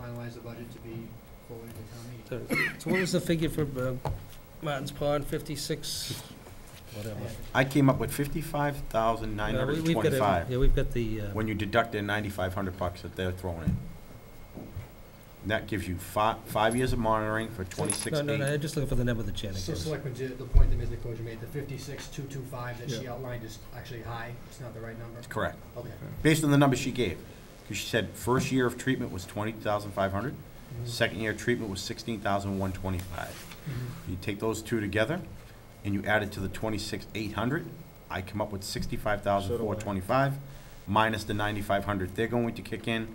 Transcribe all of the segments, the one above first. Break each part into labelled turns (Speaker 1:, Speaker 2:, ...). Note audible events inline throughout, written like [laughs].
Speaker 1: finalize the budget to be forwarded to town meeting.
Speaker 2: So so what was the figure for uh, Martin's Pond, 56, whatever?
Speaker 1: I have it.
Speaker 3: I came up with fifty-five thousand nine
Speaker 2: Yeah, we-
Speaker 3: hundred and
Speaker 2: we've got it.
Speaker 3: twenty-five,
Speaker 2: Yeah, we've got the, uh,
Speaker 3: when you deduct their ninety-five hundred bucks that they're throwing in. That gives you fi- five years of monitoring for twenty-six
Speaker 2: no, no, no,
Speaker 3: eight.
Speaker 2: I'm just looking for the number that Janet
Speaker 1: So
Speaker 2: gives.
Speaker 1: Selectman, did- the point that Ms. Nicoja made, the fifty-six, two, two, five that she
Speaker 4: Yeah.
Speaker 1: outlined is actually high, it's not the right number?
Speaker 3: Correct,
Speaker 1: Okay.
Speaker 3: based on the number she gave, because she said first year of treatment was twenty thousand five hundred, second year of treatment was sixteen thousand one twenty-five.
Speaker 1: Mm-hmm.
Speaker 3: You take those two together, and you add it to the twenty-six eight hundred, I come up with sixty-five
Speaker 4: So
Speaker 3: thousand
Speaker 4: do I.
Speaker 3: four twenty-five, minus the ninety-five hundred they're going to kick in,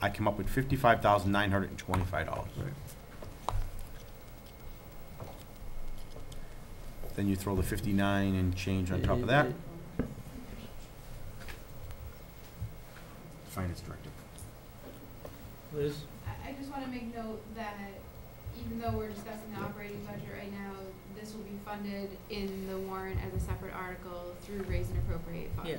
Speaker 3: I come up with fifty-five thousand nine hundred and twenty-five dollars.
Speaker 4: Right.
Speaker 3: Then you throw the fifty-nine and change on top of that. Finance director.
Speaker 2: Liz?
Speaker 5: I, I just wanna make note that even though we're discussing the operating budget right now, this will be funded in the warrant as a separate article through raise and appropriate funds.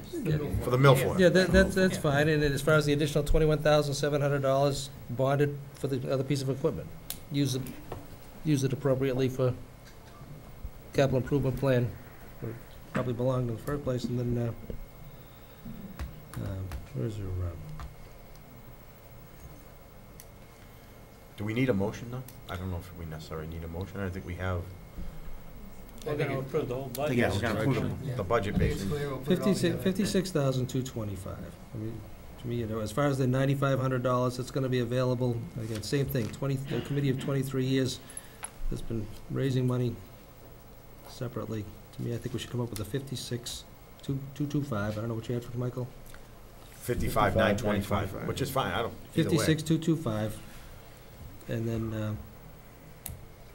Speaker 3: For the milfoil.
Speaker 2: Yeah, that, that's, that's fine, and then as far as the additional twenty-one thousand, seven hundred dollars bonded for the other piece of equipment, use it, use it appropriately for capital improvement plan, where it probably belonged in the first place, and then, uh, um, where's your, um,
Speaker 3: Do we need a motion though? I don't know if we necessarily need a motion, I think we have.
Speaker 1: We're gonna
Speaker 6: approve the whole budget.
Speaker 3: Yeah, we're gonna approve the-
Speaker 1: Yeah.
Speaker 3: the budget based on-
Speaker 2: Fifty-six, fifty-six thousand two twenty-five. I mean, to me, you know, as far as the ninety-five hundred dollars that's gonna be available, again, same thing, twenty, the committee of twenty-three years has been raising money separately. To me, I think we should come up with a fifty-six, two, two, two, five. I don't know what you had for Michael?
Speaker 3: Fifty-five, nine twenty-five,
Speaker 4: 55,925.
Speaker 3: which is fine, I don't, either way.
Speaker 2: Fifty-six, two, two, five. And then, uh,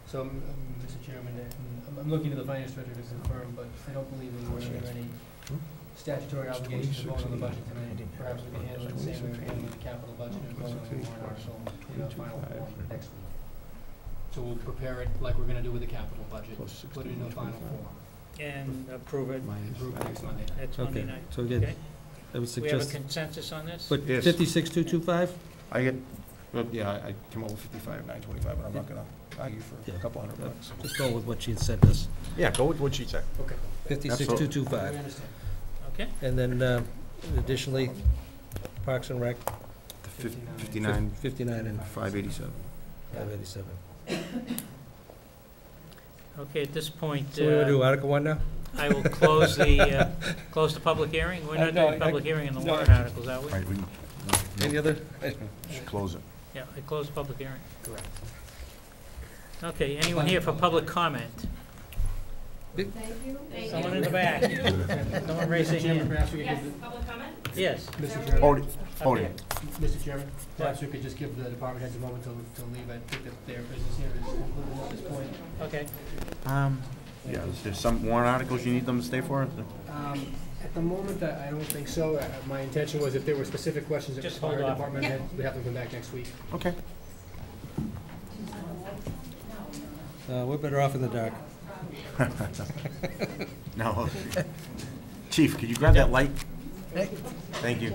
Speaker 1: So, um, Mr. Chairman, uh, I'm, I'm looking to the finance director to confirm, but I don't believe we were under any statutory obligation to vote on the budget tonight. Perhaps we can handle it the same way we handled the capital budget and vote on the warrant article in a final form next week. So we'll prepare it like we're gonna do with the capital budget, put it in a final form,
Speaker 6: And approve it,
Speaker 1: approve it next Monday.
Speaker 6: that's Monday
Speaker 2: okay,
Speaker 6: night.
Speaker 2: so
Speaker 6: Okay.
Speaker 2: again, I would
Speaker 6: We have a
Speaker 2: suggest,
Speaker 6: consensus on this?
Speaker 2: but
Speaker 4: Yes.
Speaker 2: fifty-six, two, two, five?
Speaker 4: I get, well, yeah, I I came up with fifty-five, nine twenty-five, but I'm not gonna argue for a
Speaker 2: Yeah.
Speaker 4: couple hundred bucks.
Speaker 2: Just go with what she had sent us,
Speaker 3: Yeah, go with what she said.
Speaker 1: Okay.
Speaker 2: fifty-six, two, two,
Speaker 1: We
Speaker 2: five.
Speaker 1: understand.
Speaker 6: Okay,
Speaker 2: And then um, additionally, Parks and Rec,
Speaker 4: Fifty-nine,
Speaker 2: fifty-nine and
Speaker 4: five eighty-seven.
Speaker 2: five eighty-seven.
Speaker 6: okay, at this point,
Speaker 2: So we want to do
Speaker 6: uh,
Speaker 2: Article One now?
Speaker 6: I will close the,
Speaker 2: [laughs]
Speaker 6: uh, close the public hearing. We're
Speaker 2: Uh,
Speaker 6: not
Speaker 2: no,
Speaker 6: doing
Speaker 2: I-
Speaker 6: public hearing on the
Speaker 2: no,
Speaker 6: warrant
Speaker 2: I-
Speaker 6: articles, are we?
Speaker 3: Right, we can- no,
Speaker 2: Any other?
Speaker 3: we should close it.
Speaker 6: Yeah, I closed the public hearing.
Speaker 1: Correct.
Speaker 6: Okay, anyone here for public comment?
Speaker 5: Thank you.
Speaker 6: Someone in the back? oh, No one raised their
Speaker 1: Mr. Chairman,
Speaker 6: hand?
Speaker 1: perhaps we could
Speaker 5: Yes,
Speaker 1: give
Speaker 5: public comment?
Speaker 6: Yes.
Speaker 1: the-
Speaker 5: Is
Speaker 1: Mr.
Speaker 5: that
Speaker 1: Chairman,
Speaker 5: what
Speaker 3: Hold it,
Speaker 6: up
Speaker 3: hold
Speaker 6: there.
Speaker 3: it.
Speaker 1: Mr. Chairman, perhaps we could just give the department heads a moment to, to leave. I think that their business here is concluded at this point.
Speaker 6: Okay,
Speaker 3: Um, yeah, is there some warrant articles you need them to stay for?
Speaker 1: Um, At the moment, I I don't think so. Uh, My intention was if there were specific questions that
Speaker 6: Just
Speaker 1: required
Speaker 6: hold off.
Speaker 1: department head, we have them come back next week.
Speaker 3: Okay.
Speaker 2: Uh, We're better off in the dark.
Speaker 3: [laughs] No. Chief, could you grab that light? Thank you.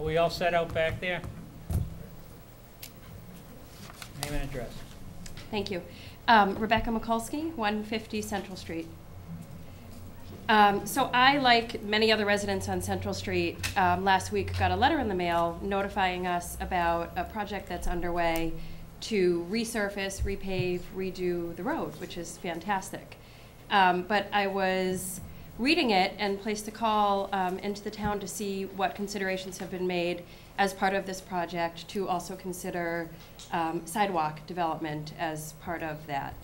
Speaker 6: are we all set out back there? Name and address.
Speaker 7: Thank you. Um, Rebecca Mikulski, 150 Central Street. Um, So I, like many other residents on Central Street, um, last week got a letter in the mail notifying us about a project that's underway to resurface, repave, redo the road, which is fantastic. Um, But I was reading it and placed a call um, into the town to see what considerations have been made as part of this project to also consider um, sidewalk development as part of that.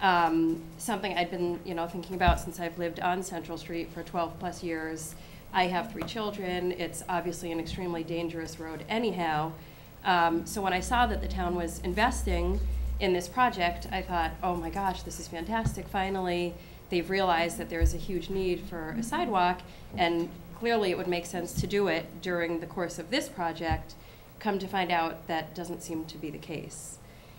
Speaker 7: Um, Something I'd been, you know, thinking about since I've lived on Central Street for 12-plus years. I have three children. It's obviously an extremely dangerous road anyhow. Um, So when I saw that the town was investing in this project, I thought, oh my gosh, this is fantastic. Finally, they've realized that there is a huge need for a sidewalk, and clearly it would make sense to do it during the course of this project. Come to find out, that doesn't seem to be the case.